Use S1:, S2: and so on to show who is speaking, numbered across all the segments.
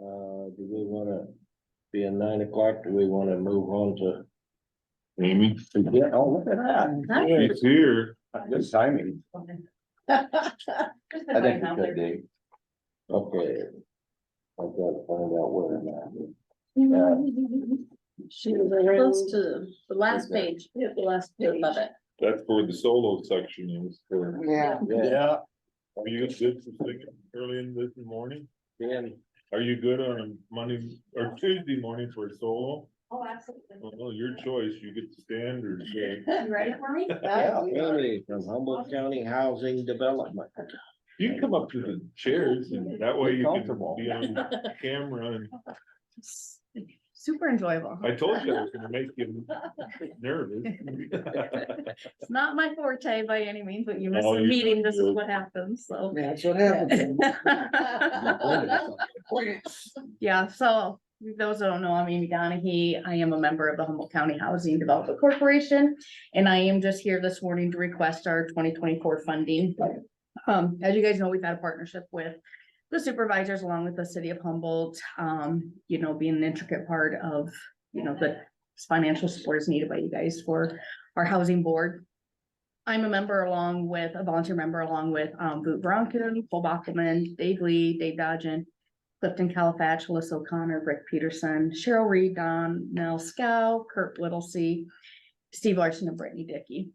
S1: Uh, do we wanna be at nine o'clock? Do we wanna move on to?
S2: Amy,
S1: Yeah, oh, look at that.
S2: she's here.
S1: Good timing.
S3: I think we could.
S1: do. Okay. I gotta find out where I'm at. Uh,
S4: She was around.
S3: Close to the last page,
S4: Yeah, the last
S3: to above
S4: page.
S3: it.
S2: That's where the solo section is for.
S5: Yeah,
S1: Yeah,
S2: Are you good for singing early in this morning?
S1: Danny.
S2: Are you good on Monday or Tuesday morning for solo?
S6: Oh, absolutely.
S2: Well, your choice. You get to stand or stay.
S6: You ready for me?
S1: Yeah, Danny from Humboldt County Housing Development.
S2: You can come up to the chairs and that way you can
S1: Comfortable.
S2: be on camera. And
S3: Super enjoyable.
S2: I told you I was gonna make you nervous.
S3: It's not my forte by any means, but you miss
S2: Oh,
S3: a
S2: you-
S3: meeting, this is what happens, so.
S5: that's what happens.
S3: Yeah, so those that don't know, I'm Amy Donahue. I am a member of the Humboldt County Housing Development Corporation. And I am just here this morning to request our twenty twenty-four funding. Um, as you guys know, we've had a partnership with the supervisors along with the city of Humboldt, um, you know, being an intricate part of, you know, the financial support is needed by you guys for our housing board. I'm a member along with, a volunteer member along with, um, Boot Bronken, Paul Bachman, Dave Lee, Dave Dodgen, Clifton Calafatch, Alyssa O'Connor, Rick Peterson, Cheryl Reed, Don Nell Scow, Kurt Whittlesey, Steve Larson and Brittany Dickey.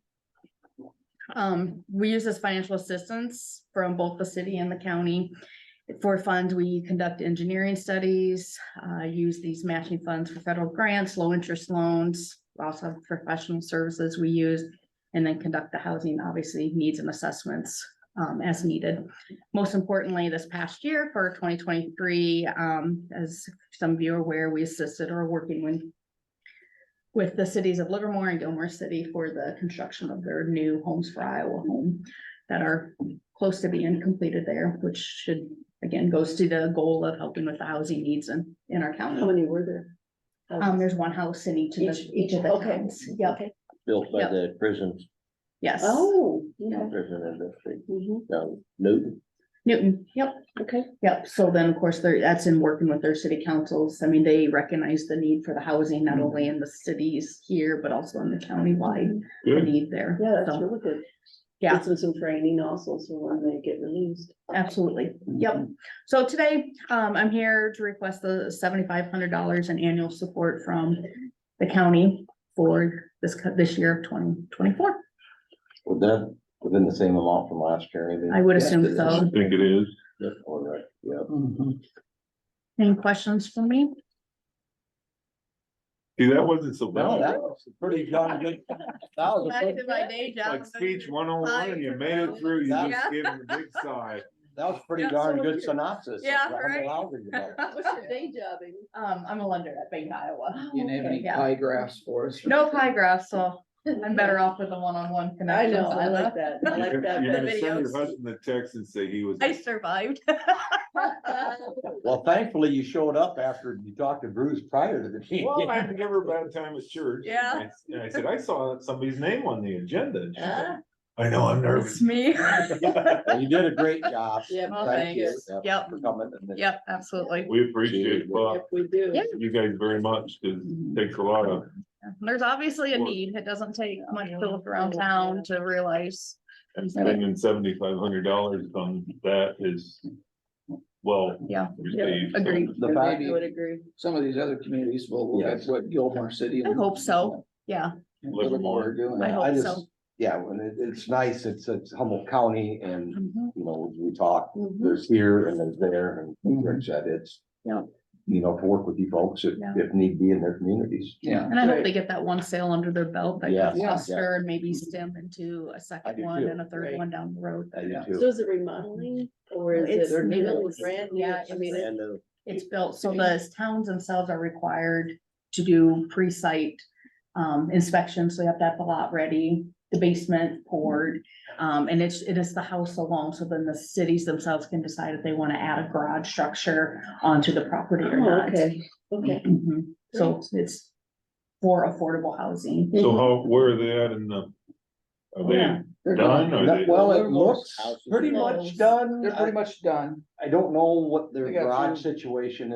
S3: Um, we use this financial assistance from both the city and the county. For funds, we conduct engineering studies, uh, use these matching funds for federal grants, low interest loans, also have professional services we use. And then conduct the housing, obviously, needs and assessments, um, as needed most importantly, this past year for twenty twenty-three, um, as some of you are aware, we assisted or are working with with the cities of Livermore and Gilmore City for the construction of their new homes for Iowa home that are close to being completed there, which should, again, goes to the goal of helping with the housing needs in, in our
S4: How
S3: county.
S4: many were there?
S3: Um, there's one house in each of the,
S4: Each-
S3: each of the
S4: okay.
S3: towns. Yep,
S1: Built by
S3: Yep.
S1: the prisons,
S3: yes.
S4: Oh, yeah.
S1: prison industry,
S4: Mhm.
S1: down Newton.
S3: Newton, yep.
S4: Okay.
S3: Yep, so then, of course, they're, that's in working with their city councils. I mean, they recognize the need for the housing, not only in the cities here, but also in the countywide
S2: Good.
S3: need there.
S4: Yeah, that's
S3: So,
S4: really good.
S3: Yeah.
S4: It's with some training also, so when they get released.
S3: Absolutely, yep. So today, um, I'm here to request the seventy-five hundred dollars in annual support from the county for this, co- this year of twenty twenty-four.
S1: Was that within the same amount from last year? maybe?
S3: I would assume
S1: Yes, it
S2: I
S3: so.
S1: is.
S2: think it is.
S1: Yes, all right, yeah.
S3: Any questions for me?
S2: See, that wasn't so
S1: No,
S2: bad.
S1: that was pretty darn good. That was a pretty,
S3: my day
S2: Like speech one oh one and you made it through. You just gave him a big sigh.
S1: that was a pretty
S3: Yeah,
S1: darn
S3: so
S1: good
S3: weird.
S1: synopsis. of
S3: Yeah,
S1: the
S3: right.
S1: Humboldt Housing Development.
S4: What's your day job?
S3: Um, I'm a lender at Bank Iowa.
S5: You didn't have any
S3: Yeah.
S5: pie graphs for us?
S3: No pie graphs, so I'm better off with the one-on-one
S4: I
S3: connection.
S4: know, I like that. I
S2: You're
S4: like
S2: gonna you're
S4: that.
S2: gonna send your
S3: videos.
S2: husband a text and say he was.
S3: I survived.
S1: Well, thankfully you showed up after you talked to Bruce prior to the meeting.
S2: Well, I had never bad time at church.
S3: Yeah.
S2: And I- And I said, I saw somebody's name on the agenda. And she
S4: Ah.
S3: Uh-huh.
S2: said, I know, I'm nervous.
S3: It's me.
S1: Well, You did a great job.
S4: Yeah,
S3: Oh,
S1: Thank you
S4: thanks.
S1: uh,
S3: Yep.
S1: for coming. and then-
S3: Yep, absolutely.
S2: We appreciate,
S4: If
S2: well,
S4: we do.
S3: Yeah.
S2: you guys very much, 'cause
S3: Mm-hmm.
S2: it takes a lot of,
S3: There's obviously a
S2: Well-
S3: need. It doesn't take much to look around town to realize.
S2: and spending seventy-five hundred dollars on that is, well.
S3: Yeah.
S2: received. So
S3: Agreed.
S1: The fact,
S4: I would agree.
S5: Some of these other communities will look at
S1: Yes.
S5: what Gilmore City. and
S3: I hope so. Yeah,
S5: Livermore are doing.
S3: I
S1: I
S3: hope
S1: just,
S3: so.
S1: yeah, when it, it's nice, it's, it's Humboldt County and,
S3: Mhm.
S1: you know, we talk,
S4: Mhm.
S1: there's here and there's there and
S5: Mhm.
S1: Rich said it's.
S3: Yeah.
S1: You know, to work with you folks if,
S3: Yeah.
S1: if need be in their communities.
S5: Yeah,
S3: And I hope they get that one sale under their belt that
S1: Yeah.
S3: can
S5: Yeah.
S3: foster and maybe stem into a
S1: do
S3: second one
S1: too.
S3: and a third
S4: Right.
S3: one down the road.
S1: I do
S5: Yeah.
S1: too.
S4: So is it remodeling or is
S3: It's
S4: it, or new,
S3: new.
S4: It's brand new?
S3: Yeah,
S4: I mean,
S3: it's-
S4: it-
S1: And, uh,
S3: It's built, so the towns themselves are required to do pre-site um inspections, so you have to have the lot ready, the basement poured. Um, and it's, it is the house alone, so then the cities themselves can decide if they want to add a garage structure onto the property or
S4: oh,
S3: not.
S4: okay, okay.
S3: Mhm. So it's for affordable housing.
S2: So how, where are they at in the? Are
S3: Yeah.
S2: they
S5: they're
S2: done?
S5: done.
S2: Are
S1: that-
S2: they-
S1: Well, it
S5: Livermore's
S1: looks
S5: house is
S1: pretty
S3: done.
S1: much done.
S5: They're pretty much done.
S1: I I don't know what their
S5: They got
S1: garage
S5: through-
S1: situation is.